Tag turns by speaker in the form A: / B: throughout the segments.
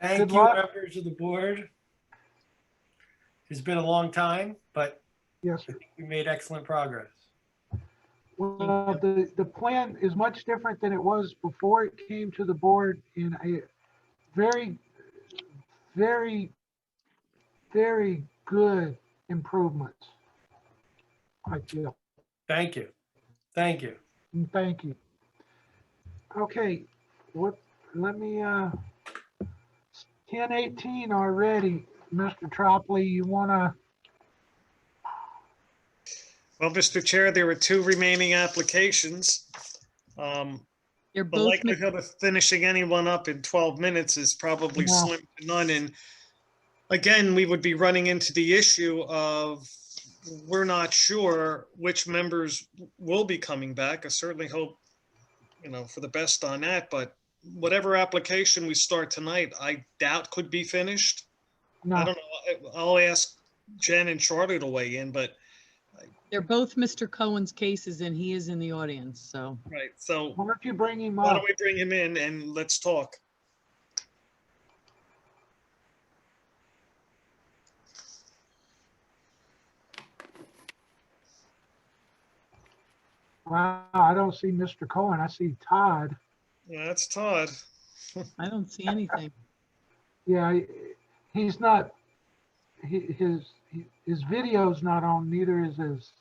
A: Thank
B: Good
A: you,
B: luck.
A: members of the board. It's been a long time, but
B: Yes,
A: we made excellent progress.
B: well, the, the plan is much different than it was before it came to the board and I, very, very, very good improvements. I feel,
A: Thank you. Thank you.
B: and thank you. Okay, what, let me, uh, ten eighteen already, Mr. Tropley, you wanna,
C: Well, Mr. Chair, there were two remaining applications. Um,
D: They're
C: The
D: both, mi-
C: likelihood of finishing anyone up in 12 minutes is probably
B: Yeah.
C: slim to none. And again, we would be running into the issue of, we're not sure which members will be coming back. I certainly hope, you know, for the best on that, but whatever application we start tonight, I doubt could be finished. I
B: no,
C: don't know. I- I'll ask Jen and Charlie to weigh in, but,
D: they're both Mr. Cohen's cases and he is in the audience, so.
C: right, so
B: why don't you bring him
C: why
B: up?
C: don't we bring him in and let's talk?
B: Wow, I don't see Mr. Cohen, I see Todd.
C: Yeah, That's Todd.
D: I don't see anything.
B: Yeah, I- he's not, he, his, he- his video's not on, neither is his.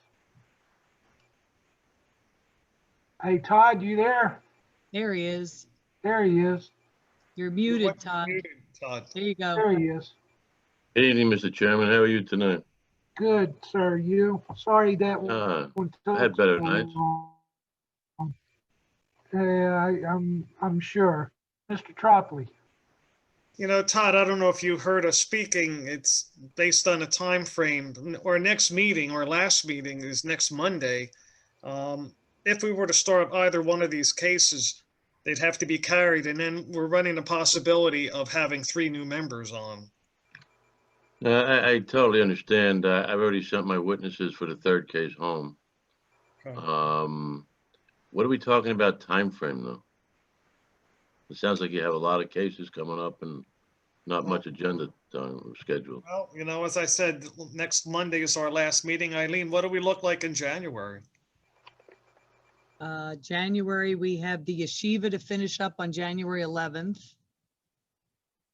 B: Hey Todd, you there?
D: There he is.
B: There he is,
D: You're muted,
C: What's
D: Todd.
C: muted, Todd.
D: There you go.
B: there he is.
E: Good Evening, Mr. Chairman. How are you tonight?
B: Good, sir, you, sorry that one.
E: Uh,
B: took
E: had better
B: so
E: nights.
B: long. Yeah, I, I'm, I'm sure. Mr. Tropley,
C: You know, Todd, I don't know if you heard us speaking. It's based on a time frame. Our next meeting or last meeting is next Monday. Um, If we were to start either one of these cases, they'd have to be carried, and then we're running the possibility of having three new members on.
E: uh, I, I totally understand. Uh, I've already sent my witnesses for the third case home.
C: Okay.
E: Um, what are we talking about time frame though? It sounds like you have a lot of cases coming up and not much agenda time or schedule.
C: Well, you know, as I said, next Monday is our last meeting. Eileen, what do we look like in January?
D: Uh, January, we have the yeshiva to finish up on January 11th.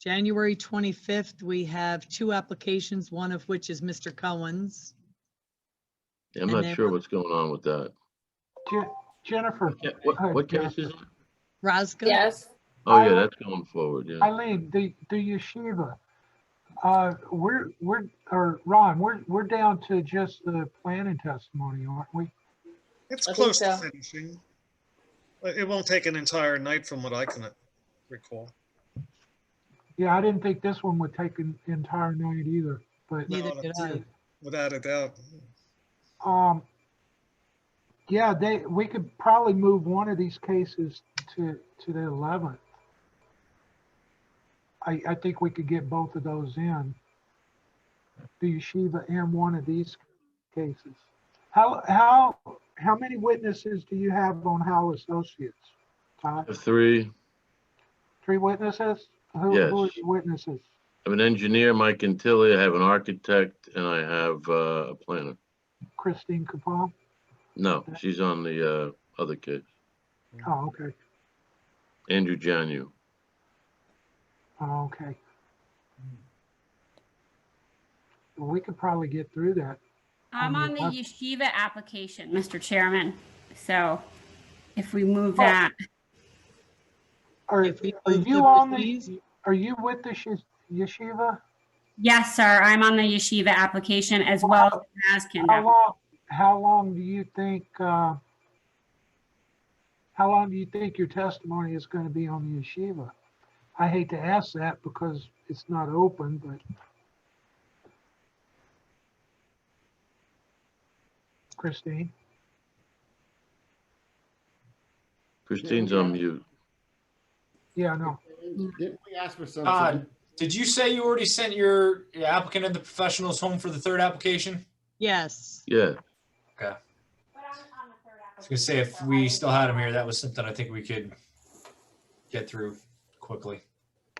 D: January 25th, we have two applications, one of which is Mr. Cohen's.
E: Yeah, I'm
D: And then
E: not sure
D: what-
E: what's going on with that.
B: Je- Jennifer,
E: Yeah, What,
B: Hi,
E: what case
B: Jennifer.
E: is it?
D: Roscoe?
F: Yes,
E: Oh, yeah,
B: Hi.
E: that's going forward, yeah.
B: Eileen, the, the yeshiva. Uh, we're, we're, or Ron, we're, we're down to just the planning testimony, aren't we?
C: It's
F: I think
C: close to
F: so.
C: finishing. But It won't take an entire night from what I can recall.
B: Yeah, I didn't think this one would take an entire night either, but, uh,
D: Neither
C: No,
D: did
C: that's
D: I.
C: it. Without a doubt.
B: um, yeah, they, we could probably move one of these cases to, to the eleventh. I, I think we could get both of those in. The yeshiva and one of these cases. How, how, how many witnesses do you have on Howell Associates?
E: I
B: Todd,
E: have Three,
B: three witnesses? Who, who are
E: Yes.
B: the witnesses?
E: I have an engineer, Mike Antilli, I have an architect, and I have, uh, a planner.
B: Christine Capone?
E: No, she's on the, uh, other case,
B: Oh, okay.
E: Andrew Janu.
B: Oh, okay. Well, we could probably get through that.
G: I'm
B: Um,
G: on the
B: uh,
G: yeshiva application, Mr. Chairman. So if we move
B: Oh.
G: that,
B: Are,
D: If we
B: are
D: move
B: you
D: the
B: on
D: trustees?
B: the, are you with the yesh- yeshiva?
G: yes, sir, I'm on the yeshiva application as well as the Nazkin.
B: How
G: app-
B: long, how long do you think, uh, how long do you think your testimony is going to be on the yeshiva? I hate to ask that because it's not open, but. Christine?
E: Christine's
H: Yeah.
E: on mute.
B: Yeah, no.
H: Didn't we ask for
I: Todd,
H: something?
I: Uh, did you say you already sent your applicant and the professionals home for the third application?
D: Yes.
E: Yeah,
G: I
I: I was gonna say, if we still had him here, that was something I think we could get through quickly.